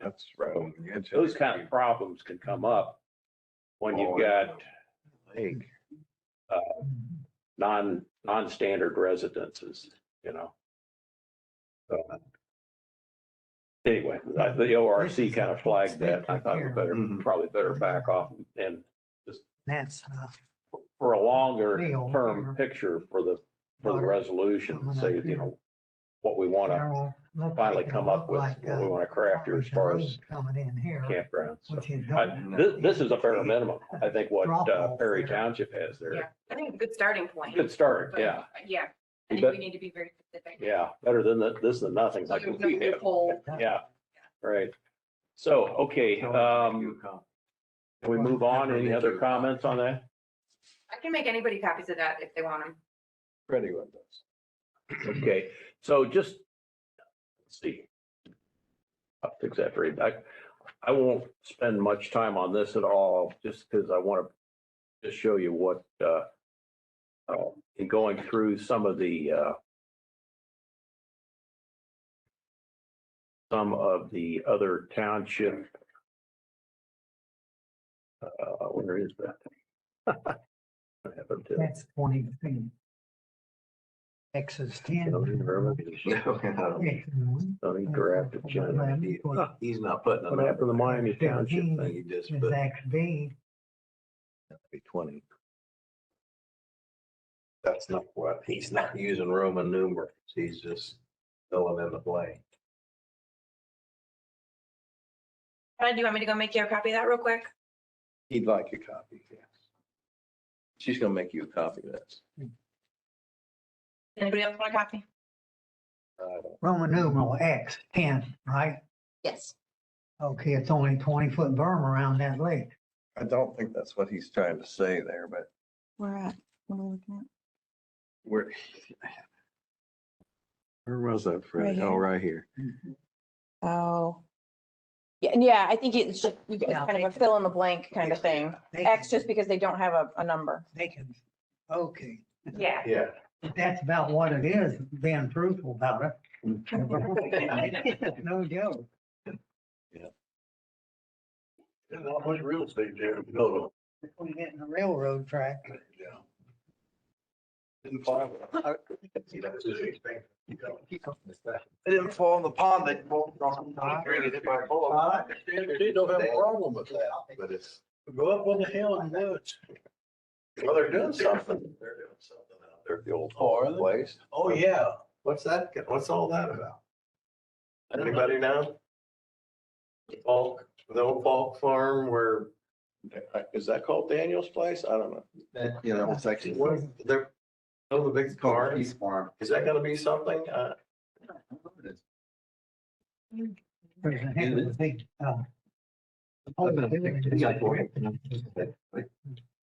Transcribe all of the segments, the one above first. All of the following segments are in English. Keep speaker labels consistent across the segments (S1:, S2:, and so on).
S1: That's right on the edge.
S2: Those kind of problems can come up when you've
S3: Oh,
S2: got
S1: Lake.
S2: non, non-standard residences, you know?
S1: Uh,
S2: So, Anyway, I- the ORC kind of flagged that. I thought we better,
S1: Mhm.
S2: probably better back off and
S4: That's uh, enough.
S2: for a longer term picture for the, for the resolution, say, you know, what we want to finally come up with, what we want to craft here as far as
S4: uh, Coming in here.
S2: campgrounds. So,
S4: which is
S2: I-
S4: not-
S2: This, this is a fair minimum, I think, what uh,
S4: Drop-off
S2: Perry
S4: there.
S2: Township has
S5: Yeah,
S2: there.
S5: I think good starting point.
S2: Good start,
S5: but, uh,
S2: yeah,
S5: Yeah, I
S2: You
S5: think we
S2: bet.
S5: need to be very specific.
S2: yeah, better than the, this than nothing,
S5: So
S2: like
S5: there's
S2: what
S5: no
S2: we have.
S5: loophole.
S2: Yeah, right. So, okay, um, can we move on? Any other comments on that?
S5: I can make anybody copies of that if they want them.
S1: Pretty with this.
S2: Okay, so just, let's see. I'll fix that for you. I, I won't spend much time on this at all, just because I want to just show you what, uh, uh, in going through some of the, uh, some of the other township. Uh, where is that? I haven't, uh,
S4: That's twenty feet. X is ten.
S2: zoning verbiage,
S4: X is one,
S2: zoning draft agenda.
S1: He's not putting
S2: What happened to the Miami Township
S4: Fifteen
S2: thing?
S1: He just
S4: is
S1: put
S4: X B,
S1: twenty. That's not what, he's not using Roman numerals. He's just filling in the blank.
S5: Ted, do you want me to go make you a copy of that real quick?
S1: He'd like a copy, yes. She's gonna make you a copy of this.
S5: Anybody else want a copy?
S1: I don't-
S4: Roman numeral X, ten, right?
S5: Yes.
S4: Okay, it's only twenty foot berm around that lake.
S1: I don't think that's what he's trying to say there, but
S5: Where at? What are we looking at?
S1: Where? Where was that, Fred?
S6: Right
S1: Oh,
S6: here.
S1: right here.
S6: Oh. Yeah, yeah, I think it's just, you
S4: Yeah.
S6: guys kind of a fill in the blank kind of thing.
S4: They
S6: X
S4: can-
S6: just because they don't have a, a number.
S4: They can, okay,
S5: Yeah,
S1: Yeah.
S4: if that's about what it is, being truthful about it. No joke.
S3: There's not much real estate there to build
S4: We're getting a railroad track.
S3: on. They
S1: It didn't fall in the pond. They
S3: won't cross the created it by bull.
S4: Uh,
S3: I understand that They don't have a problem with that, but it's go up on the hill and do it. Well, they're doing something. They're doing something out there.
S1: the old
S3: Oh, are they?
S1: place.
S3: Oh, yeah. What's that? What's all that about? Anybody know? Falk, the old Falk Farm where, uh, is that called Daniel's place? I don't know.
S7: That, you know, it's actually,
S3: What, they're, oh, the big
S7: car,
S3: car,
S7: he's farm.
S3: is that gonna be something? Uh,
S4: There's a heck of a big, uh, hole in it.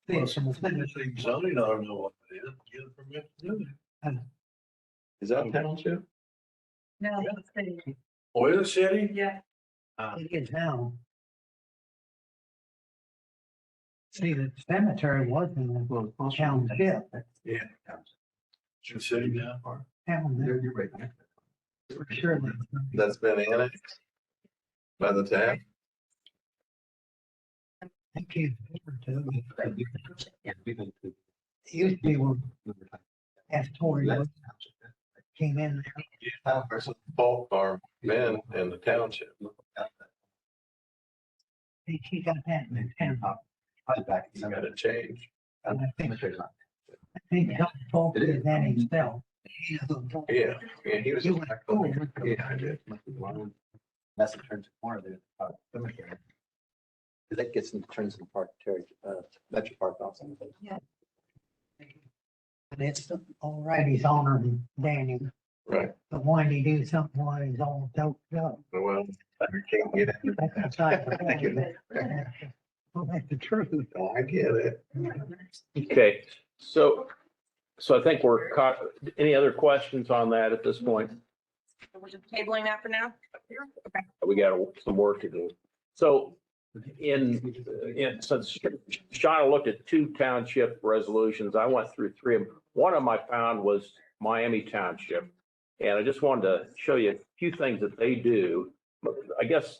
S3: well, some of the things they zoning, I don't know what it is, get a permit to do
S1: Is that township?
S5: no,
S3: that. Oil City?
S5: yeah.
S4: It is now. See, the cemetery wasn't a
S7: Well, it's also-
S4: township,
S3: Yeah. Should city now, or?
S4: town,
S7: You're
S4: there
S7: you're right.
S4: for sure.
S3: That's been annexed by the town.
S4: I can't remember too.
S7: Yeah, we went to-
S4: It used to be when
S7: we were talking
S4: as Tori
S7: about
S4: was-
S7: that township, that
S4: came in there,
S3: Yeah, versus Falk Farm, men in the township.
S7: looked out that
S4: he- he got that in the town.
S7: top, probably back in
S3: You
S7: some-
S3: gotta change.
S7: I don't think there's not-
S4: I think Doug Falk
S7: It
S4: did
S7: is.
S4: that himself. He is a-
S3: Yeah, yeah, he was.
S4: He went, oh,
S3: Yeah, I did.
S7: must be one. That's what turns the corner there. uh, cemetery. 'Cause That gets into turns into park, Terry, uh, Metro Park also.
S4: And it's all right, he's honoring Daniel.
S3: Right. Oh,
S4: But when he do something while he's all doped up.
S3: Well, we can't get it.
S4: That's the type of thing that- Well, that's the truth.
S3: I get it.
S2: Okay, so, so I think we're caught, any other questions on that at this point?
S5: We're just tabling that for now? Okay.
S2: We got some work to do. So in, in, since Shauna looked at two township resolutions, I went through three of them. One of them I found was Miami Township. And I just wanted to show you a few things that they do. But I guess